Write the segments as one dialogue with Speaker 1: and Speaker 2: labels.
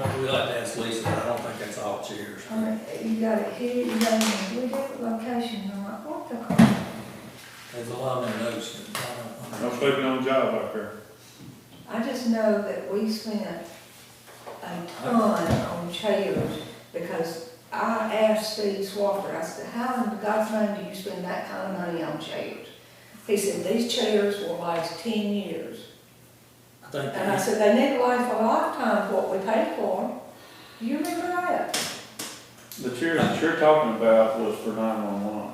Speaker 1: like to ask Lisa, but I don't think that's all chairs.
Speaker 2: All right, you got it here, you got it in three different locations, I'm like, what the crap?
Speaker 1: There's a lot of notes, but I don't.
Speaker 3: No sleeping on the job out there.
Speaker 2: I just know that we spent a ton on chairs, because I asked Steve Swafford, I said, how in God's name do you spend that kind of money on chairs? He said, these chairs will last ten years.
Speaker 1: I think,
Speaker 2: And I
Speaker 1: that-
Speaker 2: said, they need to last a lifetime for what we paid for them. Do you remember that?
Speaker 3: The chairs that you're talking about was for nine-one-one.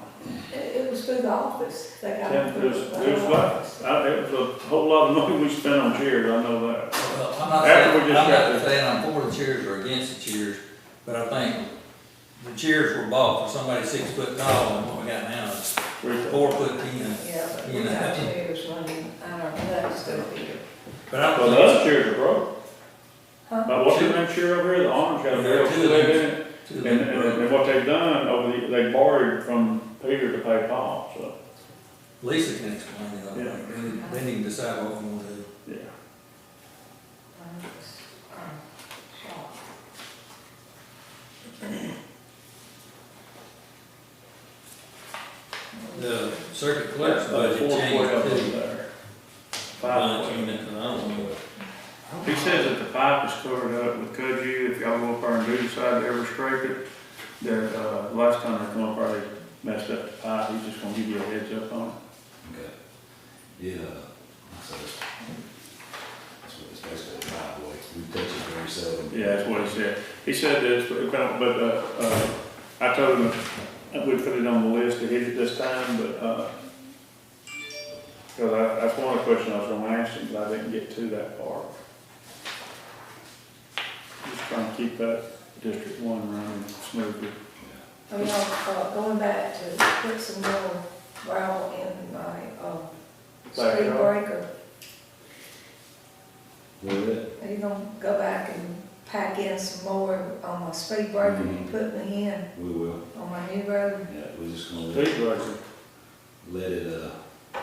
Speaker 2: It, it was through the office, they got it
Speaker 3: Yeah, it
Speaker 2: through
Speaker 3: was,
Speaker 2: the
Speaker 3: it was
Speaker 2: office.
Speaker 3: like, I, it was a whole lot of money we spent on chairs, I know that.
Speaker 1: well, I'm not
Speaker 3: After
Speaker 1: saying,
Speaker 3: we
Speaker 1: I'm
Speaker 3: just got
Speaker 1: not
Speaker 3: this-
Speaker 1: saying I'm for the chairs or against the chairs, but I think the chairs were bought for somebody six foot tall, and what we got now is
Speaker 3: We-
Speaker 1: four foot ten.
Speaker 2: Yeah, but we
Speaker 1: You know.
Speaker 2: got chairs running out of that stuff here.
Speaker 1: But I
Speaker 3: Well,
Speaker 1: don't
Speaker 3: the
Speaker 1: think
Speaker 3: other chairs are broke.
Speaker 2: Huh?
Speaker 3: Now, what's in that chair over here, the orange got a
Speaker 1: There are
Speaker 3: barrel
Speaker 1: two
Speaker 3: still
Speaker 1: of
Speaker 3: in it.
Speaker 1: it's too
Speaker 3: And,
Speaker 1: big
Speaker 3: and,
Speaker 1: for-
Speaker 3: and what they've done over the, they borrowed from Peter to pay Paul, so,
Speaker 1: Lisa can explain it, I think, Then- then you can decide what we want to do.
Speaker 3: yeah.
Speaker 2: I'm just, I'm shocked.
Speaker 1: The circuit clerk's budget
Speaker 3: Four
Speaker 1: changed
Speaker 3: twelve
Speaker 1: too.
Speaker 3: over there. Five
Speaker 1: Uh,
Speaker 3: twelve.
Speaker 1: unit, and I don't know what-
Speaker 3: He says that the pipe is covered up with kudzu, if y'all go up there and do decide to ever scrape it, there, uh, last time they come up there, they messed up the pipe, he's just gonna give you a heads up on it.
Speaker 4: Okay. Yeah, so that's what it's basically about, like, we touch it very seldom.
Speaker 3: Yeah, that's what he said. He said this, but, but, uh, uh, I told him that we put it on the list to hit it this time, but, uh, cause I, that's one of the questions I was gonna ask him, but I didn't get to that part. Just trying to keep that District One running smoothly.
Speaker 2: I mean, I'm, uh, going back to put some more gravel in my, uh, street
Speaker 3: Backyard.
Speaker 2: breaker.
Speaker 4: Where it?
Speaker 2: Are you gonna go back and pack in some more on my speed breaker you
Speaker 4: Mhm.
Speaker 2: put me in
Speaker 4: We will,
Speaker 2: on my new road?
Speaker 4: yeah, we're just gonna let-
Speaker 3: Speed breaker.
Speaker 4: let it, uh,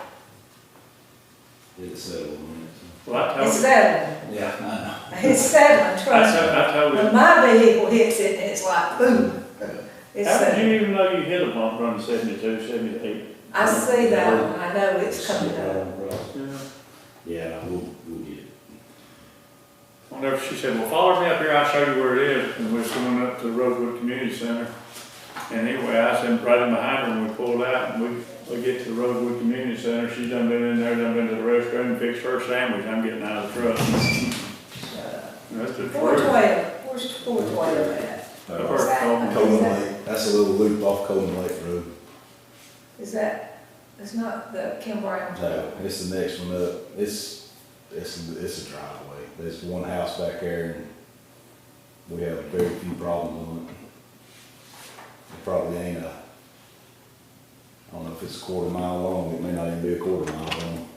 Speaker 4: let it settle on it.
Speaker 3: Well, I told
Speaker 2: It's
Speaker 3: him-
Speaker 2: settling,
Speaker 4: so. Yeah, I
Speaker 2: it's settling,
Speaker 3: I
Speaker 2: trust me.
Speaker 3: told, I told
Speaker 2: When
Speaker 3: him,
Speaker 2: my vehicle hits it, it's like, boom,
Speaker 4: know.
Speaker 2: it's uh,
Speaker 3: how did
Speaker 2: settling.
Speaker 3: you even know you hit a bump running seventy-two, seventy-eight?
Speaker 2: I see that, one. I know it's coming up.
Speaker 3: Yeah.
Speaker 4: Yeah, we'll, we'll get it.
Speaker 3: Whenever she said, well, follow me up here, I'll show you where it is, and we was going up to Rosewood Community Center. And anyway, I said, right in behind her, and we pulled out, and we, we get to Rosewood Community Center, she's done been in there, done been to the restroom, fixed her sandwich, I'm getting out of the truck. And that's the
Speaker 2: Uh, Four
Speaker 3: truth.
Speaker 2: twelve, where's four twelve at?
Speaker 3: I've
Speaker 4: Uh,
Speaker 3: heard it called me.
Speaker 4: Coleman Lake, that's a little loop off Coleman Lake Road.
Speaker 2: Is that, it's not the Kim Brown?
Speaker 4: No, it's the next one up, it's, it's, it's a driveway, there's one house back there, and we have very few problems on it. It probably ain't a, I don't know if it's a quarter mile long, it may not even be a quarter mile long,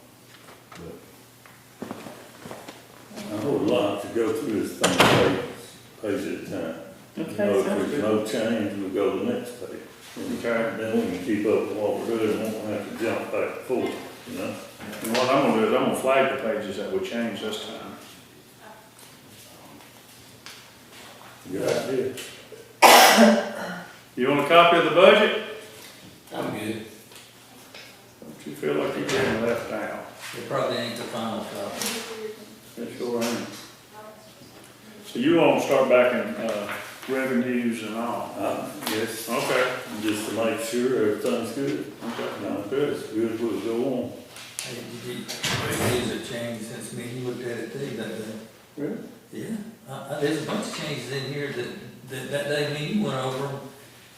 Speaker 4: but
Speaker 5: A whole lot to go through this thing, page, page at a time.
Speaker 3: Okay,
Speaker 5: No, if
Speaker 3: sounds
Speaker 5: there's no change, we go to the next page.
Speaker 3: Okay.
Speaker 5: Then we can keep up with what we're doing, and won't have to jump back and forth, you know?
Speaker 3: And what I'm gonna do is, I'm gonna flag the pages that we changed this time.
Speaker 5: Good idea.
Speaker 3: You want a copy of the budget?
Speaker 1: I'm good.
Speaker 3: Don't you feel like you're getting left out?
Speaker 1: It probably ain't the final copy.
Speaker 3: It sure ain't. So you want to start back in, uh, revenues and all?
Speaker 5: Uh, yes,
Speaker 3: Okay,
Speaker 5: just to make sure everything's good.
Speaker 3: okay.
Speaker 5: Now, if it's good, we'll go on.
Speaker 1: Hey, you did- Things have changed since me, you looked at it too that day.
Speaker 3: Really?
Speaker 1: Yeah, I, I, there's a bunch of changes in here that, that, that day me, you went over them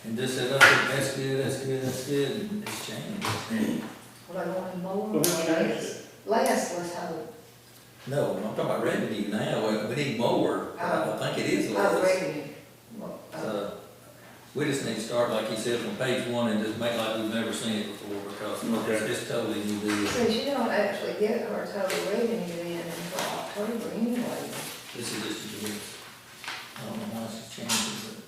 Speaker 1: and just said, oh, that's good, that's good, that's good, and it's changed.
Speaker 2: Well, I wanted
Speaker 3: Well,
Speaker 2: more.
Speaker 3: who changed it?
Speaker 2: Last was how,
Speaker 1: No, I'm talking about revenue now, we- we need more, I don't think it is
Speaker 2: I
Speaker 1: less.
Speaker 2: read it.
Speaker 1: So, we just need to start, like you said, from page one and just make like we've never seen it before, because it's-
Speaker 3: Okay.
Speaker 1: it's totally new deal.
Speaker 2: Since you don't actually get our total revenue in until October anyway.
Speaker 1: This is just a bit, I don't know why it's changing,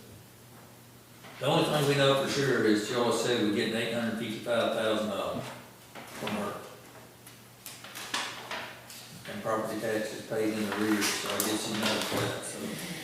Speaker 1: but. The only thing we know for sure is Joyce said we're getting eight hundred fifty-five thousand dollars from her. And property taxes paid in arrears, so I guess you know that, so.